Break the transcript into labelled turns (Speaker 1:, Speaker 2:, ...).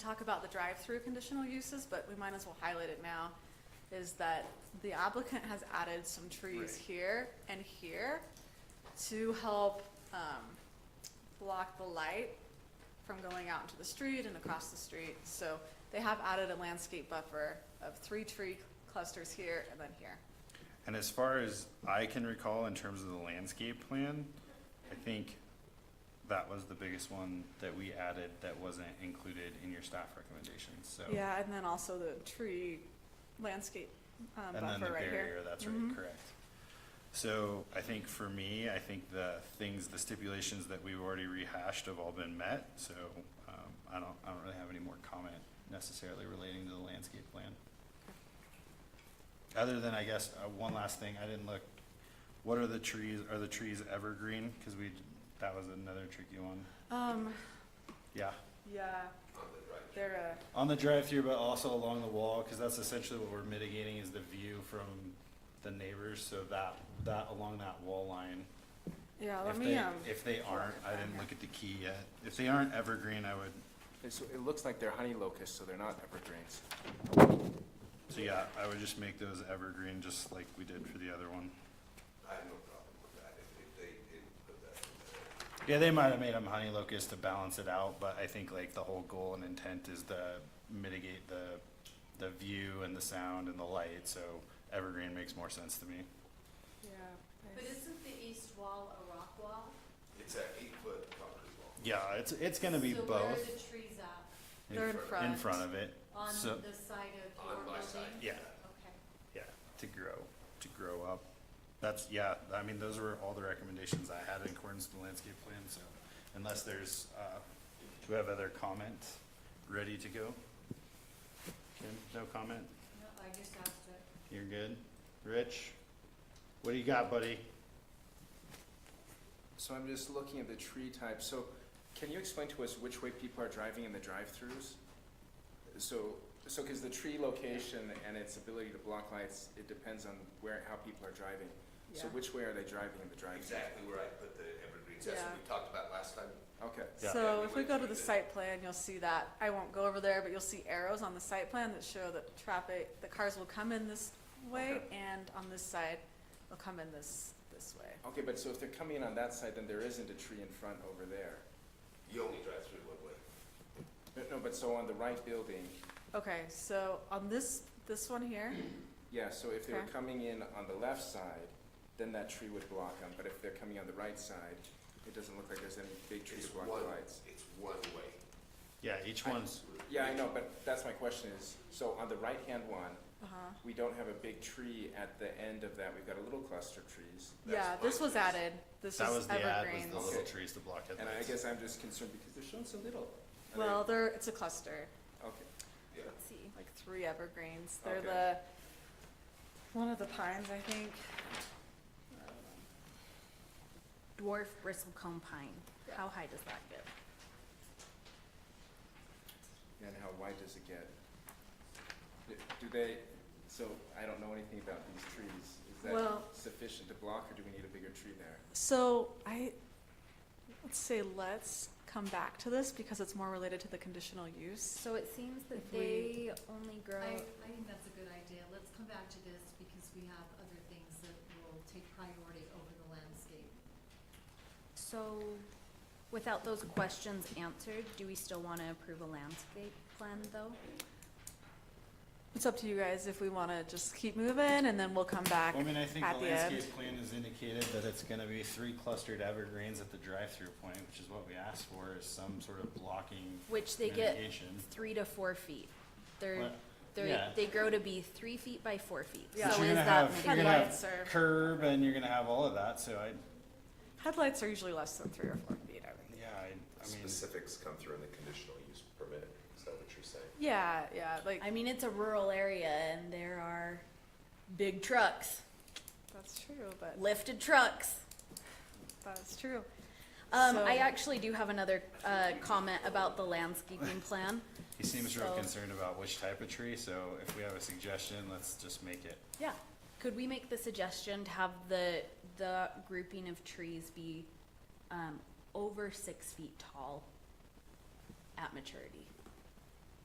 Speaker 1: talk about the drive-through conditional uses, but we might as well highlight it now, is that the applicant has added some trees
Speaker 2: Right.
Speaker 1: here and here to help, um, block the light from going out into the street and across the street. So they have added a landscape buffer of three tree clusters here and then here.
Speaker 2: And as far as I can recall, in terms of the landscape plan, I think that was the biggest one that we added that wasn't included in your staff recommendations, so.
Speaker 1: Yeah, and then also the tree landscape, um,
Speaker 2: And then the
Speaker 1: buffer right
Speaker 2: barrier,
Speaker 1: here. Mm-hmm.
Speaker 2: that's right, correct. So I think for me, I think the things, the stipulations that we've already rehashed have all been met, so, um, I don't, I don't really have any more comment necessarily relating to the landscape plan. Other than, I guess, uh, one last thing, I didn't look, what are the trees, are the trees evergreen? Cause we, that was another tricky one,
Speaker 1: Um,
Speaker 2: yeah.
Speaker 1: yeah. They're, uh,
Speaker 2: On the drive-through, but also along the wall, because that's essentially what we're mitigating is the view from the neighbors, so that, that, along that wall line.
Speaker 1: yeah, let
Speaker 2: If
Speaker 1: me,
Speaker 2: they,
Speaker 1: um,
Speaker 2: if they aren't, I didn't look at the key yet, if they aren't evergreen, I would,
Speaker 3: And so it looks like they're honey locusts, so they're not evergreens.
Speaker 2: so yeah, I would just make those evergreen, just like we did for the other one.
Speaker 4: I have no problem with that, if, if they didn't put that in there.
Speaker 2: Yeah, they might have made them honey locust to balance it out, but I think like the whole goal and intent is to mitigate the, the view and the sound and the light, so evergreen makes more sense to me.
Speaker 1: yeah.
Speaker 5: But isn't the east wall a rock wall?
Speaker 4: It's an eight-foot concrete wall.
Speaker 2: Yeah, it's, it's gonna be
Speaker 5: So where are
Speaker 2: both.
Speaker 5: the trees up?
Speaker 1: They're in front.
Speaker 2: in front of it.
Speaker 5: On
Speaker 2: So,
Speaker 5: the side of
Speaker 4: On
Speaker 5: your
Speaker 4: my
Speaker 5: building?
Speaker 4: side.
Speaker 2: yeah,
Speaker 5: Okay.
Speaker 2: yeah, to grow, to grow up. That's, yeah, I mean, those were all the recommendations I had in accordance with the landscape plan, so unless there's, uh, do we have other comment ready to go? Kim, no comment?
Speaker 5: No, I just asked it.
Speaker 2: You're good? Rich? What do you got, buddy?
Speaker 3: So I'm just looking at the tree type. So can you explain to us which way people are driving in the drive-throughs? So, so because the tree location and its ability to block lights, it depends on where, how people are driving. So
Speaker 1: Yeah.
Speaker 3: which way are they driving in the drive-through?
Speaker 4: Exactly where I put the evergreens, that's what we talked about last time.
Speaker 3: Okay.
Speaker 2: Yeah.
Speaker 1: So
Speaker 4: Yeah,
Speaker 1: if
Speaker 4: we
Speaker 1: we go to
Speaker 4: went
Speaker 1: the
Speaker 4: through the-
Speaker 1: site plan, you'll see that, I won't go over there, but you'll see arrows on the site plan that show that traffic, the cars will come in this way
Speaker 3: Okay.
Speaker 1: and on this side, they'll come in this, this way.
Speaker 3: Okay, but so if they're coming in on that side, then there isn't a tree in front over there.
Speaker 4: You only drive through one way.
Speaker 3: No, No, but so on the right building,
Speaker 1: Okay, so on this, this one here,
Speaker 3: yeah, so if they were
Speaker 1: Okay.
Speaker 3: coming in on the left side, then that tree would block them, but if they're coming on the right side, it doesn't look like there's any big trees
Speaker 4: It's
Speaker 3: blocking
Speaker 4: one,
Speaker 3: lights.
Speaker 4: it's one way.
Speaker 2: Yeah, each one's,
Speaker 3: Yeah, I know, but that's my question is, so on the right-hand one,
Speaker 1: uh-huh,
Speaker 3: we don't have a big tree at the end of that, we've got a little cluster of trees.
Speaker 4: That's
Speaker 1: yeah, this
Speaker 4: fine.
Speaker 1: was added, this
Speaker 2: that was
Speaker 1: was
Speaker 2: the ad, was
Speaker 1: evergreens.
Speaker 2: the little
Speaker 3: Okay.
Speaker 2: trees to block
Speaker 3: And I
Speaker 2: headlights.
Speaker 3: guess I'm just concerned because they're showing so little. Are they-
Speaker 1: Well, they're, it's a cluster,
Speaker 3: Okay,
Speaker 4: Yeah.
Speaker 5: Let's see.
Speaker 1: like three evergreens, they're
Speaker 3: Okay.
Speaker 1: the, one of the pines, I think. I
Speaker 2: Uh,
Speaker 1: don't know.
Speaker 6: dwarf bristlecone pine.
Speaker 1: Yeah.
Speaker 6: How high does that get?
Speaker 3: and how wide does it get? Do- Do they, so I don't know anything about these trees, is that
Speaker 1: Well-
Speaker 3: sufficient to block or do we need a bigger tree there?
Speaker 1: So I, let's say, let's come back to this because it's more related to the conditional use.
Speaker 6: So it seems that
Speaker 1: If we-
Speaker 6: they only grow.
Speaker 5: I, I think that's a good idea. Let's come back to this because we have other things that will take priority over the landscape.
Speaker 6: So without those questions answered, do we still want to approve a landscape plan though?
Speaker 1: It's up to you guys if we want to just keep moving and then we'll come back.
Speaker 2: Well, I mean, I think
Speaker 1: at
Speaker 2: the
Speaker 1: the end.
Speaker 2: landscape plan has indicated that it's gonna be three clustered evergreens at the drive-through point, which is what we asked for, is some sort of blocking
Speaker 6: Which they get
Speaker 2: mitigation.
Speaker 6: three to four feet. They're,
Speaker 2: But-
Speaker 6: they're,
Speaker 2: Mm-hmm. yeah.
Speaker 6: they grow to be three feet by four feet.
Speaker 1: Yeah.
Speaker 2: But
Speaker 6: So
Speaker 2: you're
Speaker 6: is
Speaker 2: gonna
Speaker 6: that
Speaker 2: have- You're
Speaker 1: many
Speaker 2: gonna
Speaker 1: lights or-
Speaker 2: have curb and you're gonna have all of that, so I,
Speaker 1: Headlights are usually less than three or four feet, I think.
Speaker 2: yeah, I, I mean,
Speaker 4: Specifics come through in the conditional use permit, is that what you're saying?
Speaker 1: Yeah, yeah, like,
Speaker 6: I mean, it's a rural area and there are big trucks,
Speaker 1: that's true, but
Speaker 6: lifted trucks.
Speaker 1: that's true.
Speaker 6: Um,
Speaker 1: So-
Speaker 6: I actually do have another, uh, comment about the landscaping plan.
Speaker 2: he seems real
Speaker 6: So-
Speaker 2: concerned about which type of tree, so if we have a suggestion, let's just make it.
Speaker 6: Yeah, could we make the suggestion to have the, the grouping of trees be, um, over six feet tall at maturity?